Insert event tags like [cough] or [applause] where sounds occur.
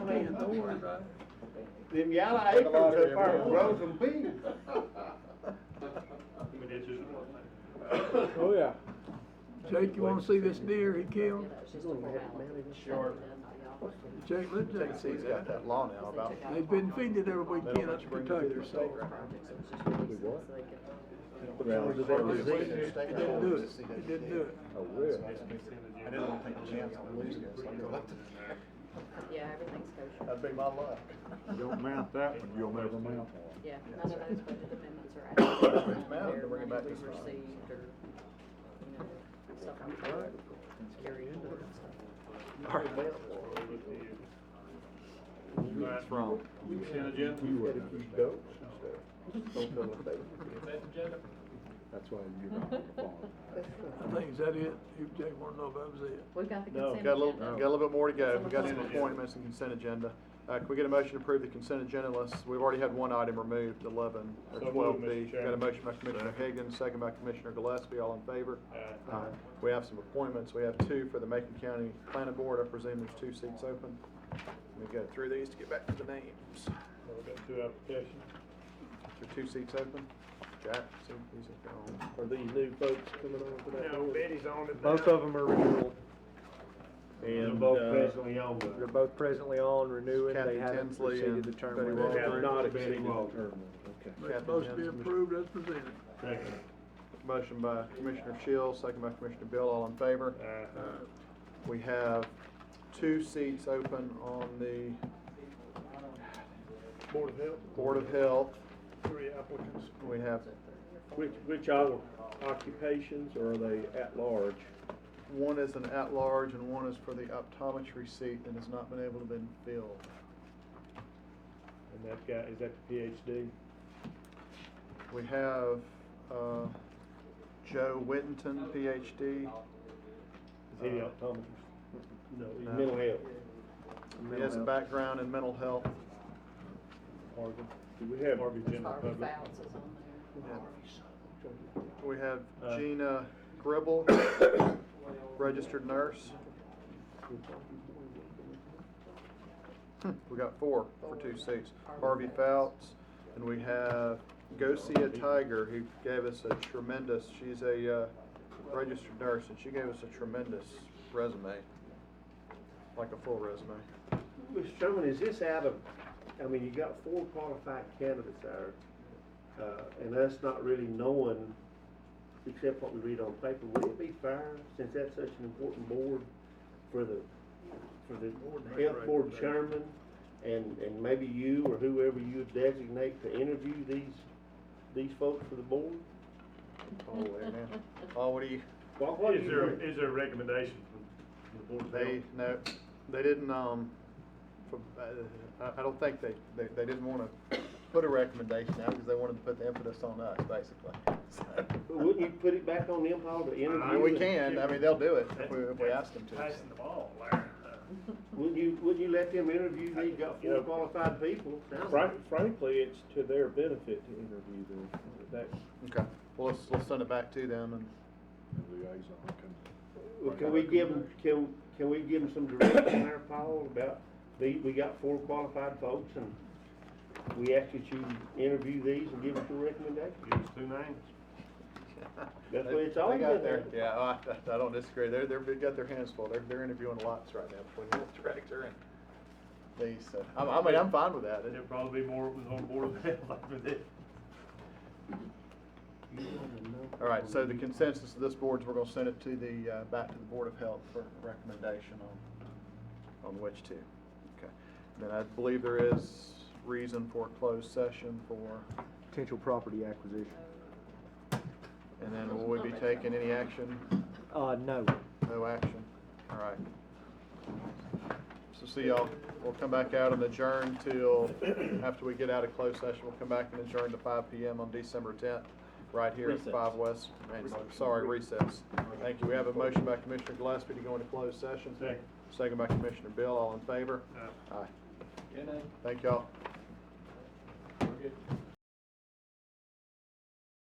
land, Lord. Them yellow Take a acres lot of up there everyone. grow some beans. Oh, yeah. Jake, you wanna see this deer he killed? Sure. Jake, let Jake Texas see has that. got that law now about. They've been feeding every They don't weekend let up you in bring them to Kentucky, their state, so. right? Well, They they don't did. let you bring them to their It state didn't do it, laws. it didn't do it. I will. I didn't want to take a chance on losing this. I go, Yeah, everything's kosher. That'd be my luck. Don't mount that one, you'll never mount one. Yeah, none of those budget amendments [coughs] are actually It's mounted, their bring money it we back received this or, time. you know, stuff I'm carried forward and stuff. It's wrong. You wouldn't understand. Goats and stuff. Don't tell them they- That's why you're not on the phone. I think, is that it? If Jake wanna know if that was it. We've got the No, consent got a little, agenda. got a little bit more to go. We got some Consent agenda. appointments and consent agenda. Uh, can we get a motion to approve the consent agenda unless, we've already had one item removed, eleven or So moved, twelve Mr. B. Got a Chairman. motion by Commissioner Higgins, second by Commissioner Gillespie, all in favor? Aye. We have some appointments. We have two for the Macon County Planning Board. I presume there's two seats open. Let me go through these to get back to the names. We've got two applications. There are two seats open. Jack, see, he's gone. Are these new folks coming on for that? No, board? Betty's on it now. Both of them are renewal. They're And, both uh, presently on they're it. both presently on renewing. Kathy They haven't Tinsley exceeded and the term. Betty limit. Walker. They have Not Betty exceeded the Walker. term. limit. Okay. Yeah, It's supposed to be Jim's- approved as presented. Second. Motion by Commissioner Shields, second by Commissioner Bill, all in favor? Uh, We have two seats open on the Board of Health, Board of Health. three applicants. We have Which, which are occupations or are they at large? one is an at-large and one is for the optometry seat and has not been able to been filled. And that guy, is that the PhD? We have uh, Joe Whittington, PhD. Is he the Uh, optometrist? No, he's No. mental health. He has a background in mental health. Harvard. Do we have? Harvard General Harvey Public. Fouts is on there. We have Uh, Gina Gribble, registered nurse. Hmm, We got four for two seats. Harvey Fouts, and we have Gosia Tiger, who gave us a tremendous, she's a uh, registered nurse, and she gave us a tremendous resume, like a full resume. Mr. Chairman, is this out of, I mean, you got four qualified candidates there, uh, and us not really knowing, except what we read on paper, would it be fair, since that's such an important board for the, for the health board chairman, and, and maybe you or whoever you designate to interview these, these folks for the board? Oh, amen. Oh, what do you, What- what do Is you there, think? is there a recommendation from the Board of Health? They, no, they didn't, um, from, uh, I, I don't think they, they, they didn't wanna put a recommendation out because they wanted to put the impetus on us, basically. [laughs] So, But Wouldn't you put it back on them, Paul, to interview? I mean, we and- can, I mean, they'll do it if we, if we ask them to. Passing the ball, Larry. Wouldn't you, wouldn't you let them interview, they got You four know, qualified people? Sounds like- Frank- Frankly, it's to their benefit to interview them. That, Okay, well, let's, let's send it back to them and, Liaison can- Well, can we give them, can, can we give them some direction there, Paul, about, we, we got four qualified folks and we ask that you interview these and give us your recommendation? Give us two names. That's They- what it's they all got been their- at. Yeah, I, I don't disagree, they're, they're, they've got their hands full, they're, they're interviewing lots right now between the health director and these, so, I, I mean, I'm fine with that. There'll probably be more with on Board [laughs] of Health after this. All right, so the consensus of this board is we're gonna send it to the, uh, back to the Board of Health for recommendation on, on which to. Okay. Then I believe there is reason for a closed session for, Potential property acquisition. and then will we be taking any action? Uh, no. No action? All right. So see y'all, we'll come back out and adjourn till, after we get out of closed session, we'll come back and adjourn to five P M on December tenth, right here at Recess. five West, and, sorry, recess. Thank you. We have a motion by Commissioner Gillespie to go into closed session. Second. Second by Commissioner Bill, all in favor? Aye. Aye. Thank y'all.